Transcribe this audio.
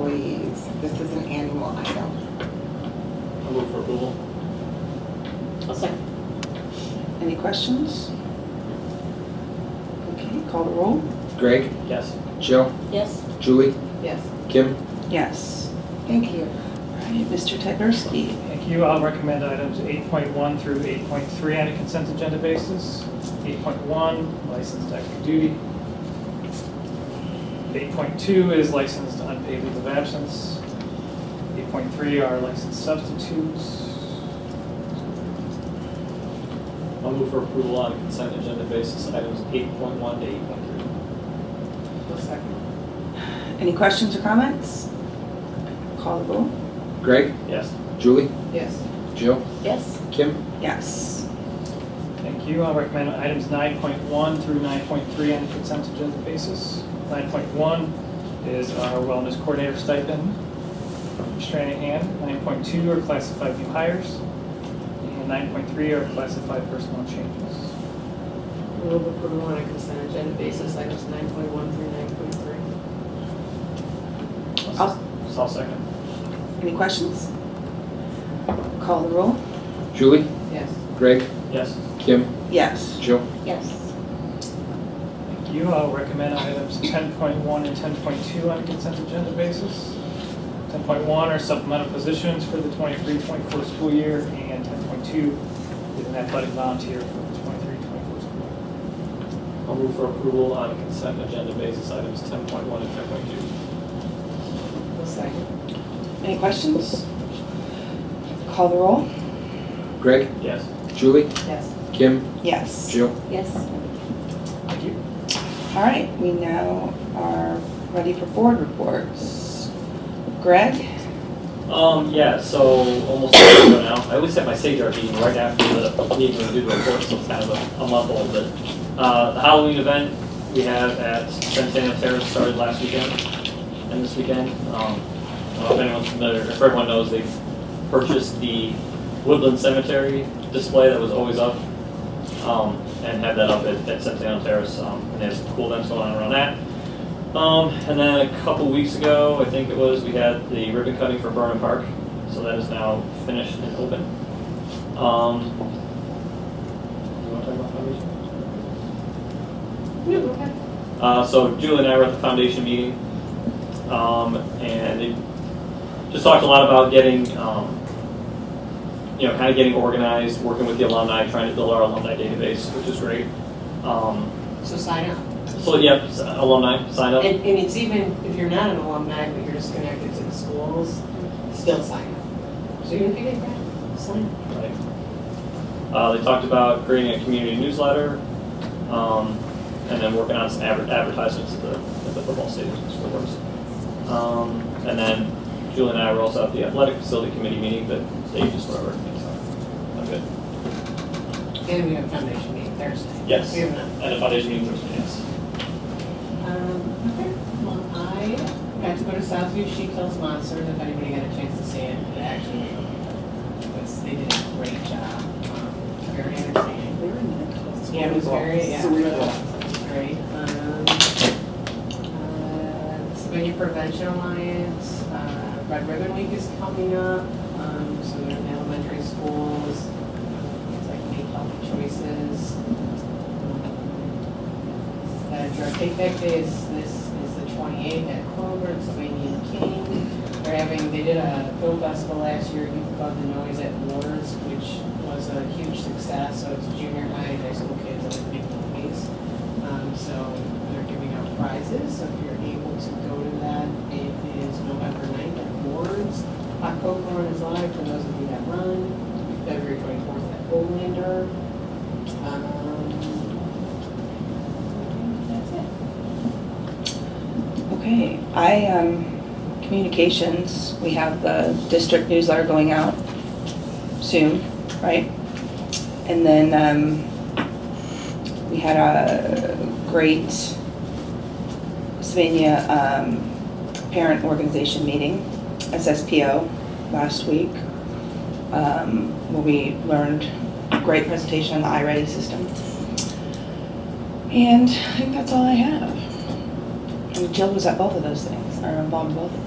employees. This is an annual item. I'll move for approval. I'll second. Any questions? Okay, call the roll. Greg, Yes. Jill, Yes. Julie, Yes. Kim, Yes. Thank you. All right, Mr. Tednarski. Thank you. I'll recommend items 8.1 through 8.3 on a consent agenda basis. 8.1, licensed active duty. 8.2 is licensed unpaid leave of absence. 8.3 are licensed substitutes. I'll move for approval on a consent agenda basis, items 8.1 to 8.3. I'll second. Any questions or comments? Call the roll. Greg, Yes. Julie, Yes. Jill, Yes. Kim, Yes. Thank you. I'll recommend items 9.1 through 9.3 on a consent agenda basis. 9.1 is our wellness coordinator stipend, Stranahan. 9.2 are classified new hires, and 9.3 are classified personnel changes. Move approval on a consent agenda basis, items nine point one through nine point three. I'll- So I'll second. Any questions? Call the roll. Julie, Yes. Greg, Yes. Kim, Yes. Jill, Yes. Thank you. I'll recommend items 10.1 and 10.2 on a consent agenda basis. 10.1 are supplemental positions for the 23-24 school year, and 10.2 is an athletic volunteer for the 23-24 school year. I'll move for approval on a consent agenda basis, items 10.1 and I'll second. Any questions? Call the roll. Greg, 10.2. Yes. Julie, Yes. Kim, Yes. Jill. Yes. Thank you. All right, we now are ready for board reports. Greg? Um, yeah, so almost a year ago now, I always have my SAGR meeting right after the meeting when we do the report, so it's kind of a, a month old, but, uh, the Halloween event we have at Centennial Terrace started last weekend and this weekend. Um, I don't know if anyone's familiar, if everyone knows, they've purchased the Woodland Cemetery display that was always up, um, and have that up at, at Centennial Terrace, um, and there's some cool events going on around that. Um, and then a couple weeks ago, I think it was, we had the ribbon cutting for Burnham Park, so that is now finished and open. Um, you want to talk about foundation? Uh, so Julie and I were at the foundation meeting, um, and it just talked a lot about getting, um, you know, kind of getting organized, working with the alumni, trying to build our alumni database, which is great. Um, So sign up. so yeah, s- alumni sign up. And, and it's even, if you're not an alumni, but you're just connected to the schools, still sign up. So even if you get that, sign up. Right. Uh, they talked about creating a community newsletter, um, and then working on some adver- advertisements at the, at the football stadiums for works. Um, and then Julie and I were also at the athletic facility committee meeting, but they just whatever. so, I'm good. And we have foundation meeting Thursday. Yes. We have none. And the foundation meeting Thursday, yes. Um, okay, well, I got to go to Southview She Kills Monsters, if anybody got a chance to see it, it actually was, they did a great job. Um, Very entertaining. Yeah, it was very, yeah. Great. Um, uh, Civilian Prevention Alliance, uh, Red Ribbon Week is coming up, um, so they're in elementary schools, uh, it's like make healthy choices. Um, Uh, Drug Take Back Day is, this is the twenty-eighth at Clover, it's Wayne King. They're having, they did a film festival last year, Youth Above the Noise at Wars, which was a huge success, so it's junior high, and high school kids, and a big movies. Um, so they're giving out prizes, so if you're able to go to that, it is November ninth at Ward's. Hot Cocoa Run is live for those of you that run, February twenty-fourth at Olander. Um, that's it. Okay, I, um, communications, we have the district newsletter going out soon, right? And then, um, we had a great Sylvania, um, parent organization meeting, SSPO, last week, um, where we learned a great presentation on the iReady system. And I think that's all I have. And Jill was at both of those things, or involved in both of them.